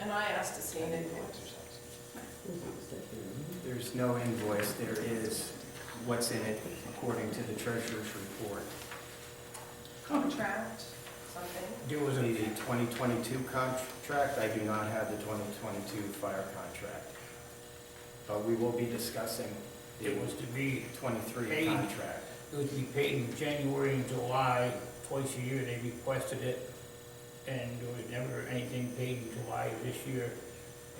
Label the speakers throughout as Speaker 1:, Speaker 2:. Speaker 1: And I asked to see an invoice.
Speaker 2: There's no invoice, there is what's in it according to the treasurer's report.
Speaker 1: Contract, something.
Speaker 2: It was in the 2022 contract, I do not have the 2022 fire contract. But we will be discussing the
Speaker 3: It was to be,
Speaker 2: 23
Speaker 3: Paid.
Speaker 2: contract.
Speaker 3: it was to be paid in January and July, twice a year, they requested it. And there was never anything paid in July of this year.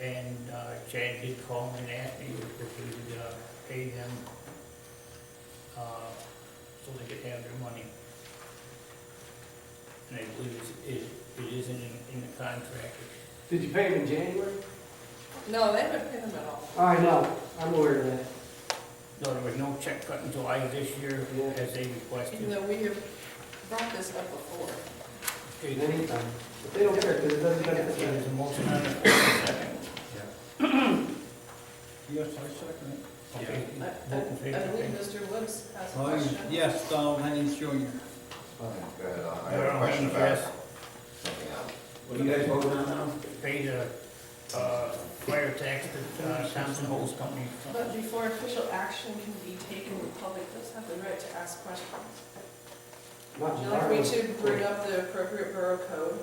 Speaker 3: And uh, Chad did call me and ask me if we would uh, pay them, uh, so they could have their money. And I believe it's- it, it is in, in the contract.
Speaker 4: Did you pay him in January?
Speaker 1: No, they haven't paid them at all.
Speaker 4: I know, I'm aware of that.
Speaker 3: No, there was no check cut in July of this year,
Speaker 4: Yeah.
Speaker 3: as they
Speaker 1: Even
Speaker 3: requested.
Speaker 1: though we have brought this up before.
Speaker 3: Okay, then
Speaker 4: Anytime. But they don't care, because it doesn't benefit
Speaker 3: Okay,
Speaker 4: them.
Speaker 3: there's a motion on the floor, second.
Speaker 2: Yeah.
Speaker 5: Yes, I second it.
Speaker 3: Okay,
Speaker 1: I I-
Speaker 3: vote in
Speaker 1: I
Speaker 3: favor,
Speaker 1: believe
Speaker 3: okay.
Speaker 1: Mr. Woods has a
Speaker 5: Aye,
Speaker 1: question.
Speaker 5: Yes, Donald Hennings Jr.
Speaker 6: Go ahead, I
Speaker 3: There
Speaker 6: have
Speaker 3: are
Speaker 6: a question
Speaker 3: hands,
Speaker 6: about
Speaker 3: yes.
Speaker 6: something else.
Speaker 7: What are you guys voting on now?
Speaker 3: Pay the, uh, fire tax to uh, Thompson Hose Company.
Speaker 1: But before official action can be taken, the public does have the right to ask questions.
Speaker 4: Not
Speaker 1: Would you like me
Speaker 4: July.
Speaker 1: to bring up the appropriate borough code?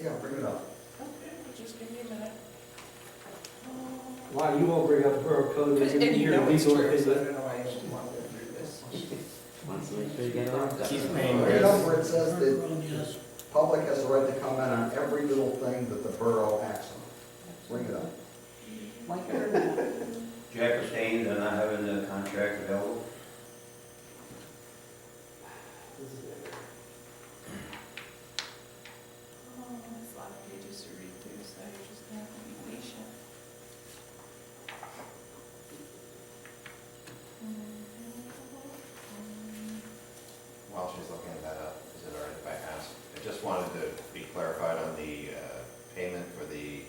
Speaker 6: Yeah, bring it up.
Speaker 1: Okay, just give me a minute. Um,
Speaker 4: Why, you won't bring up borough code, you're
Speaker 1: And
Speaker 4: gonna
Speaker 1: you
Speaker 4: hear
Speaker 1: know it's
Speaker 4: legal
Speaker 1: true, so I
Speaker 4: opinion.
Speaker 1: don't know why I just want to go through this.
Speaker 2: He's paying
Speaker 6: Bring it up
Speaker 2: this.
Speaker 6: where it says that
Speaker 5: Bergeron, yes.
Speaker 6: public has the right to comment on every little thing that the borough acts on. Bring it up.
Speaker 7: Jack abstained on not having the contract available.
Speaker 1: Oh, it's a lot of pages to read through, so you're just gonna have to be patient.
Speaker 6: While she's looking that up, is it all right if I ask? I just wanted to be clarified on the uh, payment for the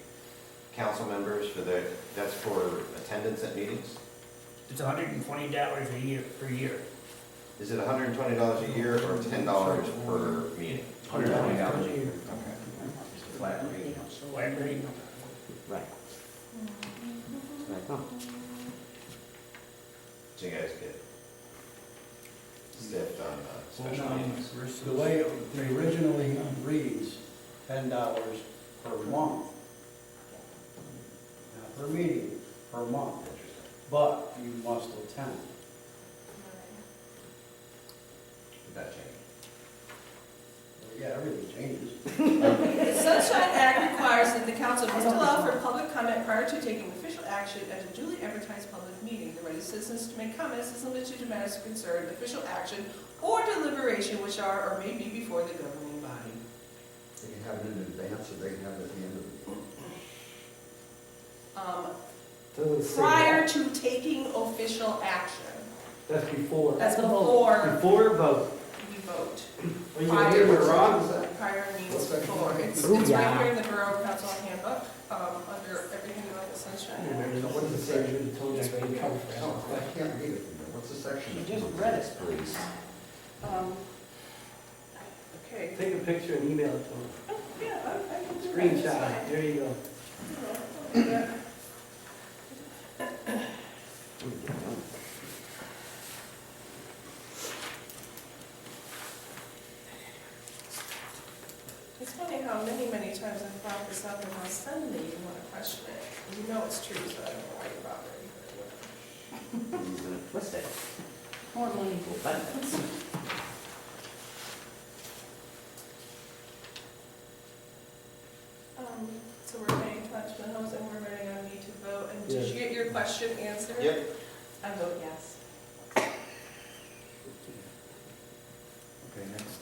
Speaker 6: council members for the, that's for attendance at meetings?
Speaker 3: It's hundred and twenty dollars a year, per year.
Speaker 6: Is it hundred and twenty dollars a year or ten dollars per meeting?
Speaker 7: Hundred twenty dollars a year.
Speaker 6: Okay.
Speaker 7: It's a flat rate.
Speaker 3: So I agree.
Speaker 7: Right.
Speaker 6: So you guys get zipped on uh, special
Speaker 5: Well, now,
Speaker 6: meetings?
Speaker 5: The way it originally reads, ten dollars per month. Not per meeting, per month, but you must attend.
Speaker 6: Did that change?
Speaker 5: Yeah, everything changes.
Speaker 1: The Sunshine Act requires that the council must allow for public comment prior to taking official action at a duly advertised public meeting. The right of citizens to make comments is limited to matters of concern, official action, or deliberation which are or may be before the governing body.
Speaker 6: They can have it in advance or they can have it at the end of the meeting.
Speaker 1: Um,
Speaker 4: Doesn't say
Speaker 1: Prior
Speaker 4: that.
Speaker 1: to taking official action.
Speaker 4: That's before.
Speaker 1: That's before
Speaker 4: Before vote.
Speaker 1: we vote.
Speaker 4: Are you gonna hear what Ron said?
Speaker 1: Prior means
Speaker 6: What's that?
Speaker 1: before. It's, it's right here in the Borough Council handbook, um, under everything about the
Speaker 4: I
Speaker 1: sunshine.
Speaker 4: remember, what the surgeon told you, I couldn't cover for
Speaker 6: No,
Speaker 4: health.
Speaker 6: I can't read it. What's the section?
Speaker 4: You just read it.
Speaker 6: Please.
Speaker 1: Um, Okay.
Speaker 4: Take a picture and email it to him.
Speaker 1: Yeah, I- I can do that. It's
Speaker 4: Screenshot,
Speaker 1: fine.
Speaker 4: there you go.
Speaker 1: Yeah. It's funny how many, many times I've brought this up and how suddenly you want to question it. You know it's true, so I don't know why you're bothering. but whatever.
Speaker 7: What's that? More money for benefits.
Speaker 1: Um, so we're paying attention to homes and we're ready on need to vote, and did you get your question answered?
Speaker 6: Yep.
Speaker 1: I vote yes.
Speaker 2: Okay, next.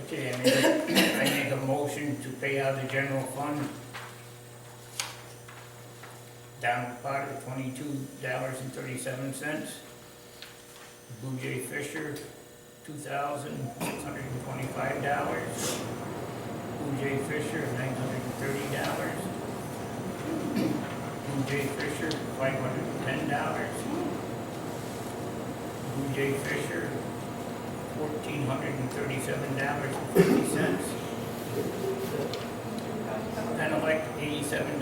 Speaker 3: Okay, I make, I make a motion to pay out the general fund. Down the pot of twenty-two dollars and thirty-seven cents. Blue Jay Fisher, two thousand six hundred and twenty-five dollars. Blue Jay Fisher, nine hundred and thirty dollars. Blue Jay Fisher, five hundred and ten dollars. Blue Jay Fisher, fourteen hundred and thirty-seven dollars and fifty cents. Penelec, eighty-seven